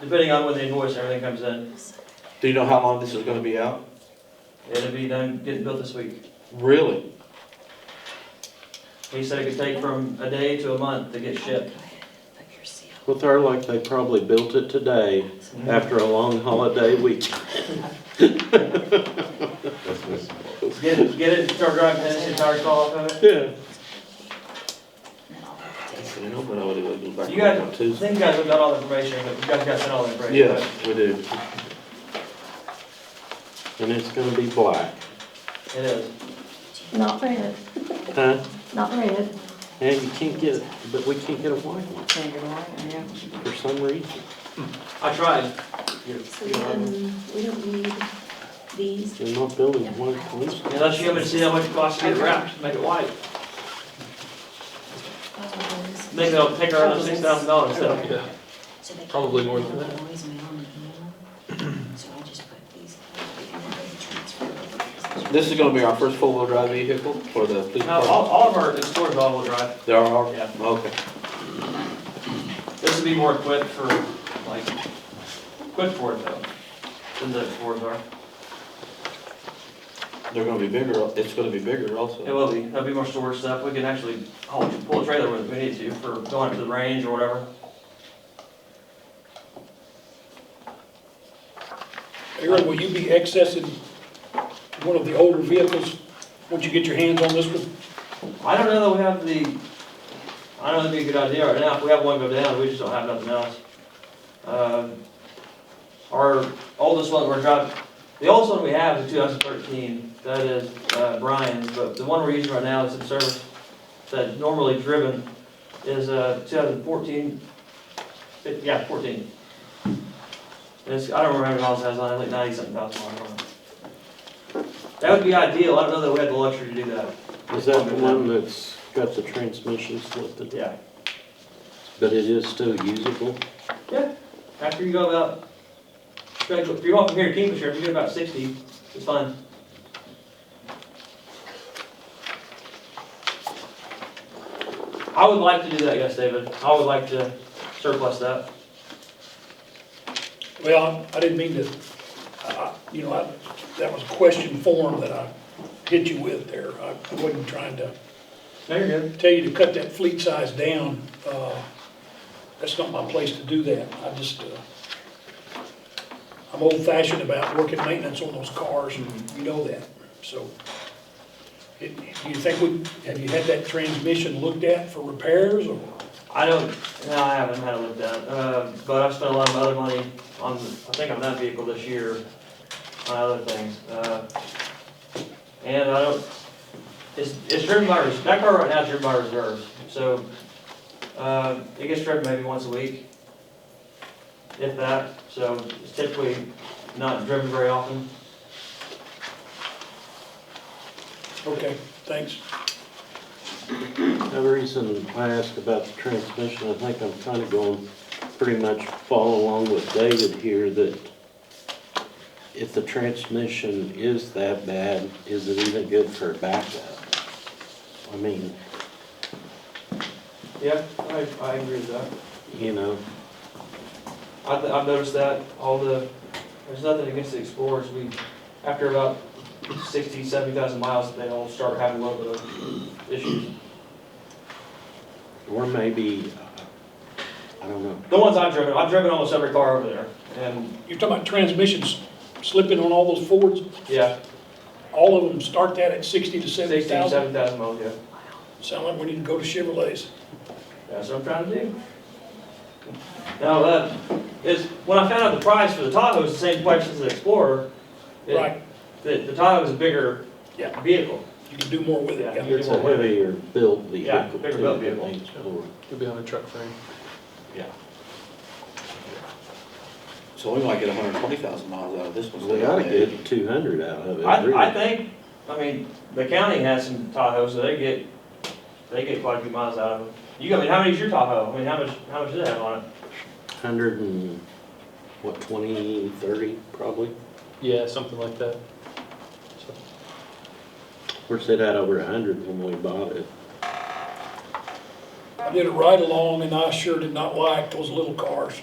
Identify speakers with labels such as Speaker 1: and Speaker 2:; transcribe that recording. Speaker 1: depending on when the invoice and everything comes in.
Speaker 2: Do you know how long this is gonna be out?
Speaker 1: It'll be done, getting built this week.
Speaker 2: Really?
Speaker 1: He said it could take from a day to a month to get shipped.
Speaker 3: With her, like they probably built it today after a long holiday week.
Speaker 1: Get it, get it, start driving, finish the entire call off of it.
Speaker 3: Yeah.
Speaker 2: You know, but I would've looked back
Speaker 1: You guys-
Speaker 2: on
Speaker 1: I
Speaker 2: Tuesday.
Speaker 1: think you guys have got all the information, but you guys got sent all the information.
Speaker 2: Yes, we do.
Speaker 3: And it's gonna be black.
Speaker 1: right? It is.
Speaker 4: Not red,
Speaker 3: Huh?
Speaker 4: not red.
Speaker 3: And you can't get, but we can't get a white one for some reason.
Speaker 1: I tried.
Speaker 5: So we don't, we don't need these.
Speaker 3: They're not building white ones.
Speaker 1: Unless you haven't seen how much it costs to get wrapped, make it white.
Speaker 5: um,
Speaker 1: Make it, take around six thousand dollars, so.
Speaker 6: Probably more than that.
Speaker 2: This is gonna be our first four-wheel drive vehicle for the police
Speaker 1: Now, all,
Speaker 2: department?
Speaker 1: all of our Explorer's all-wheel drive.
Speaker 2: There are,
Speaker 1: Oh, Yeah.
Speaker 2: okay.
Speaker 1: This would be more equipped for, like, quick Ford though, than the Fords are.
Speaker 2: They're gonna be bigger, it's gonna be bigger
Speaker 1: It
Speaker 2: also.
Speaker 1: will be, there'll be more storage stuff, we can actually haul, pull a trailer with it if we need to, for going up to the range or whatever.
Speaker 7: Aaron, will you be accessing one of the older vehicles once you get your hands on this one?
Speaker 1: I don't know that we have the, I don't know that'd be a good idea right now, if we have one go down, we just don't have nothing else. Um, Our oldest one we're driving, the oldest one we have is two thousand thirteen, that is uh, Brian's, but the one we're using right now that's in service, that's normally driven, is uh, 2014. It- yeah, fourteen. It's, I don't remember how many miles it has on it, like ninety something thousand miles on it. That would be ideal, I don't know that we have the luxury to do that.
Speaker 3: Is that the one that's got the transmission slipped?
Speaker 1: Yeah,
Speaker 3: But it is still usable?
Speaker 1: after you go about, if you walk from here to Kingfisher, if you get about sixty, it's fine. I would like to do that, yes, David, I would like to surplus that.
Speaker 7: Well, I I didn't mean to, I- I- you know, I- that was question form that I hit you with there. I I wasn't trying to
Speaker 1: No, you're good.
Speaker 7: tell you to cut that fleet size down. Uh, That's not my place to do that. I just, uh, I'm old fashioned about working maintenance on those cars, and you know that, so. it- Do you think we, have you had that transmission looked at for repairs or?
Speaker 1: I don't, no, I haven't had it looked at, uh, but I've spent a lot of other money on, I think on that vehicle this year, on other things, uh. And I don't, it's, it's driven by, res- that car right now is driven by reserves, so, uh, it gets driven maybe once a week. If that, so it's typically not driven very often.
Speaker 7: Okay, thanks.
Speaker 3: The reason I asked about the transmission, I think I'm kind of going pretty much follow along with David here that if the transmission is that bad, is it even good for a backup? I mean,
Speaker 1: Yeah, I, I agree with that.
Speaker 3: you know,
Speaker 1: I th- I've noticed that all the, there's nothing against the Explorers, we, after about sixty, seventy thousand miles, they all start having a little bit of issues.
Speaker 3: or maybe, uh, I don't know,
Speaker 1: The ones I've driven, I've driven almost every car over there, and,
Speaker 7: You're talking about transmissions slipping on all those Fords?
Speaker 1: yeah,
Speaker 7: All of them start that at 60 to
Speaker 1: sixty,
Speaker 7: 70,000?
Speaker 1: seven thousand miles, yeah,
Speaker 7: Sound like we need to go to Chevrolets.
Speaker 1: that's what I'm trying to do. Now, that is, when I found out the price for the Tahoe is the same price as the Explorer, it-
Speaker 7: Right,
Speaker 1: the, the Tahoe is a bigger
Speaker 7: Yeah.
Speaker 1: vehicle,
Speaker 7: you can do more with it,
Speaker 1: Yeah.
Speaker 7: yeah.
Speaker 3: it's a heavier built vehicle.
Speaker 1: Yeah, bigger built
Speaker 3: too, than
Speaker 1: vehicle.
Speaker 3: these four.
Speaker 6: Could be on a truck frame.
Speaker 2: So we might get hundred and twenty thousand miles out of this one.
Speaker 3: We ought to get two hundred out of it.
Speaker 1: I,
Speaker 3: really.
Speaker 1: I think, I mean, the county has some Tahoes, so they get, they get quite a few miles out of them. You, I mean, how many's your Tahoe? I mean, how much, how much does it have on it?
Speaker 3: Hundred and, what, twenty, thirty, probably?
Speaker 6: Yeah, something like that. So,
Speaker 3: Of course, it had over a hundred when we bought it.
Speaker 7: I did a ride along and I sure did not like those little cars.